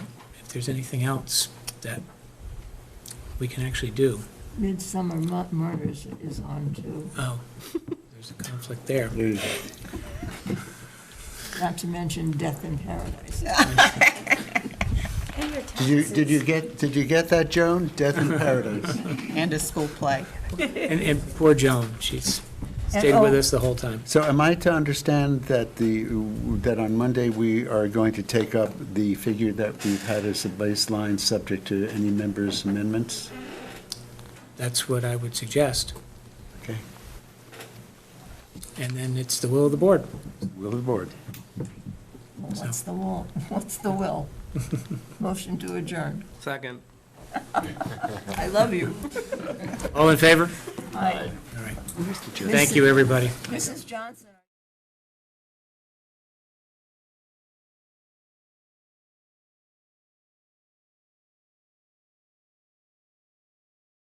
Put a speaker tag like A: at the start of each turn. A: if there's anything else that we can actually do.
B: Midsummer Mu- Murders is on too,
A: Oh, there's a conflict there.
B: not to mention Death in Paradise.
C: And your
D: Did you, did you get, did you get that, Joan? Death in Paradise.
E: and a school play.
A: And, and poor Joan, she's stayed with us the whole time.
D: So am I to understand that the, that on Monday, we are going to take up the figure that we've had as a baseline, subject to any members' amendments?
A: That's what I would suggest.
D: Okay,
A: And then it's the will of the board.
D: will of the board.
B: Well, What's the will, what's the will? Motion to adjourn.
F: Second.
B: I love you.
A: All in favor?
B: Aye.
A: All right. Thank you, everybody.
B: Mrs. Johnson.